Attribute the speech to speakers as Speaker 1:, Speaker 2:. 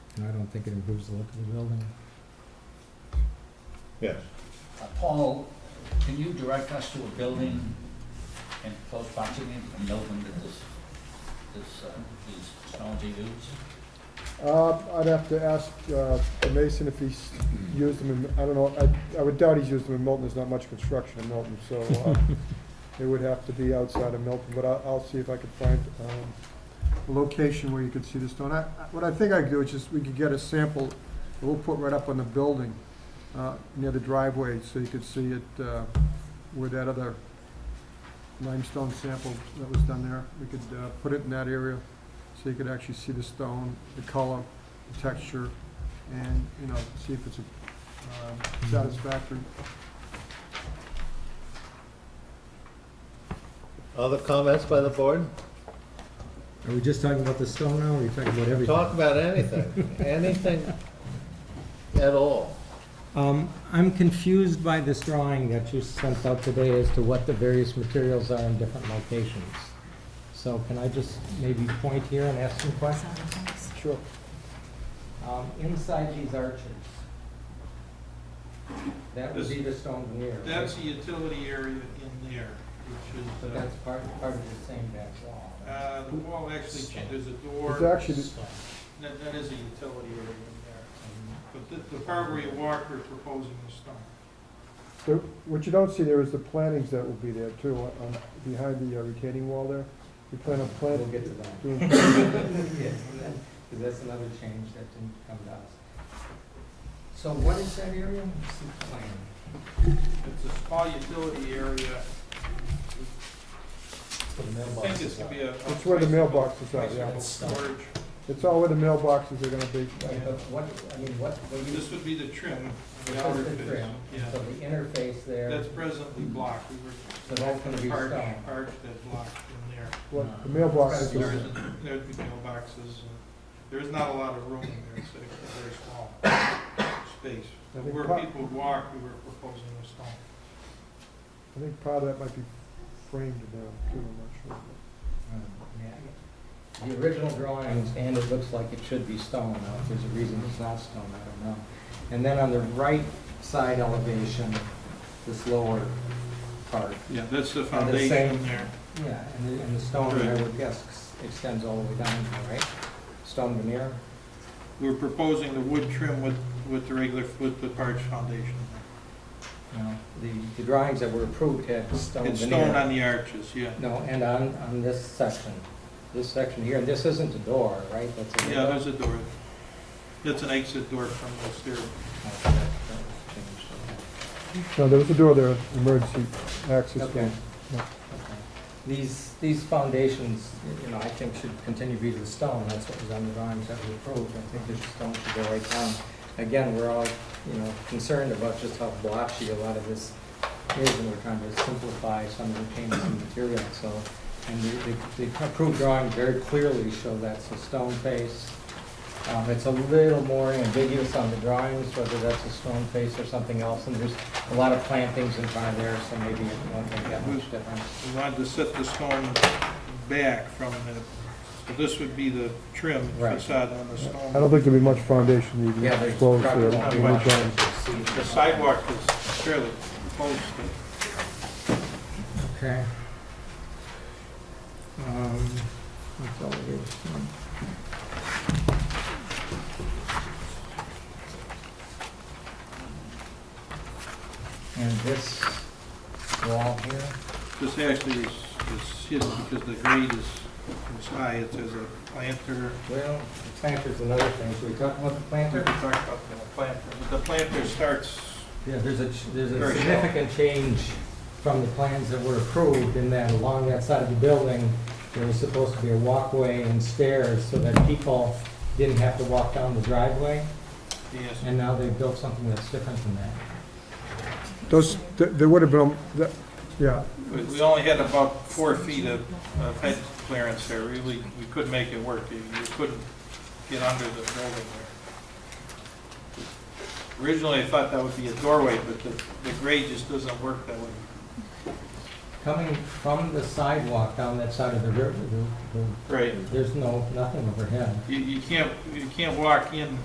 Speaker 1: and I don't think it improves the look of the building.
Speaker 2: Yes.
Speaker 3: Uh, Paul, can you direct us to a building in close proximity from Milton that this, this, uh, these stones are used?
Speaker 4: Uh, I'd have to ask, uh, the Mason if he's used them in, I don't know, I, I would doubt he's used them in Milton, there's not much construction in Milton, so, uh, it would have to be outside of Milton, but I, I'll see if I can find, um, a location where you could see the stone. I, I- what I think I could do is just, we could get a sample, that we'll put right up on the building, uh, near the driveway, so you could see it, uh, where that other limestone sample that was done there, we could, uh, put it in that area so you could actually see the stone, the color, the texture, and, you know, see if it's um, satisfactory.
Speaker 2: Other comments by the board?
Speaker 1: Are we just talking about the stone now, or are we talking about everything?
Speaker 2: Talk about anything, anything at all.
Speaker 1: Um, I'm confused by this drawing that you sent out today as to what the various materials are in different locations. So can I just maybe point here and ask some questions?
Speaker 4: Sure.
Speaker 1: Um, inside these arches, that would be the stone veneer. right?
Speaker 5: That's the utility area in there,
Speaker 1: So
Speaker 5: which is,
Speaker 1: that's part, part of the same back wall.
Speaker 5: uh, uh, the wall actually, cha- there's a door.
Speaker 4: It's actually,
Speaker 5: That, that is a utility area in there. But the, the part where you walk, we're proposing the stone.
Speaker 4: there- what you don't see there is the plantings that will be there too, on- on, behind the uh, retaining wall there. We plan on
Speaker 1: We'll
Speaker 4: planting.
Speaker 1: get to that.
Speaker 4: doing-
Speaker 1: Yes, because that's another change that didn't come to us. So what is that area? It's the plan.
Speaker 5: It's a small utility area. I think it's gonna be a.
Speaker 4: It's where the mailboxes are, yeah.
Speaker 5: Storage.
Speaker 4: It's all where the mailboxes are gonna be.
Speaker 1: Right, But what, I mean, what, what you,
Speaker 5: This would be the trim, the
Speaker 1: That's
Speaker 5: outer
Speaker 1: the
Speaker 5: face.
Speaker 1: trim. so
Speaker 5: Yeah,
Speaker 1: the interface there,
Speaker 5: that's presently blocked. We were
Speaker 1: so that's gonna be
Speaker 5: Arch,
Speaker 1: stone.
Speaker 5: arch that block in there.
Speaker 4: Well, the mailboxes
Speaker 5: There
Speaker 4: are,
Speaker 5: isn't, there'd be mailboxes, and there is not a lot of room in there, so it's a very small space.
Speaker 4: I think
Speaker 5: Where
Speaker 4: part,
Speaker 5: people would walk, we were proposing a stone.
Speaker 4: I think part of that might be framed down too, I'm not sure.
Speaker 1: Hmm, The original drawings, and it looks like it should be stone, now if there's a reason it's not stone, I don't know. And then on the right side elevation, this lower part,
Speaker 5: Yeah, that's the
Speaker 1: And the same-
Speaker 5: foundation there.
Speaker 1: yeah, and the, and the stone, I
Speaker 5: Right.
Speaker 1: would guess, ex- extends all the way down, here, right? Stone veneer,
Speaker 5: We're proposing the wood trim with, with the regular, with the arch foundation.
Speaker 1: you know, the, the drawings that were approved had stone veneer.
Speaker 5: It's stone on the arches, yeah.
Speaker 1: No, and on, on this section, this section here, and this isn't a door, right? That's a
Speaker 5: Yeah,
Speaker 1: window?
Speaker 5: there's a door. That's an exit door from this here.
Speaker 1: Okay, that- that was changed, okay.
Speaker 4: No, there was a door there, emergency access
Speaker 1: Okay.
Speaker 4: door. Yeah.
Speaker 1: Okay. These, these foundations, you know, I think should continue to be the stone, that's what was on the drawings that we approved, I think the stone should go right down. Again, we're all, you know, concerned about just how blotchy a lot of this is, and we're trying to simplify some of the changes in material, so. And the, the the approved drawings very clearly show that's a stone face. Um, it's a little more ambiguous on the drawings, whether that's a stone face or something else, and there's a lot of plantings in front of there, so maybe it won't make that much difference.
Speaker 5: We wanted to set the stone back from the, so this would be the trim
Speaker 1: Right.
Speaker 5: facade on the
Speaker 4: I don't
Speaker 5: stone.
Speaker 4: think there'll be much foundation needed.
Speaker 1: Yeah, there's
Speaker 4: Close
Speaker 1: probably
Speaker 4: there.
Speaker 1: not
Speaker 4: We'll
Speaker 5: much.
Speaker 4: rejoin.
Speaker 5: Oh, The sidewalk is fairly close to
Speaker 1: Okay. Um, that's all it is. And this wall here,
Speaker 5: This actually is, is hidden because the grade is, is high, it's as a planter.
Speaker 1: well, the planter's another thing, should we talk about the
Speaker 5: We
Speaker 1: planter?
Speaker 5: could talk about the planter, but the planter starts,
Speaker 1: Yeah, there's a, ch- there's a
Speaker 5: Very shallow.
Speaker 1: significant change from the plans that were approved in that along that side of the building, there was supposed to be a walkway and stairs so that people didn't have to walk down the driveway,
Speaker 5: yes,
Speaker 1: and now they've built something that's different than that.
Speaker 4: Those, th- there would have been, that- yeah,
Speaker 5: we, we only had about four feet of, of head clearance there, really, we could make it work, you, you couldn't get under the building there. Originally, I thought that would be a doorway, but the, the grade just doesn't work that way.
Speaker 1: Coming from the sidewalk down that side of the river, the-
Speaker 5: Right.
Speaker 1: the- there's no, nothing overhead.
Speaker 5: You, you can't, you can't walk in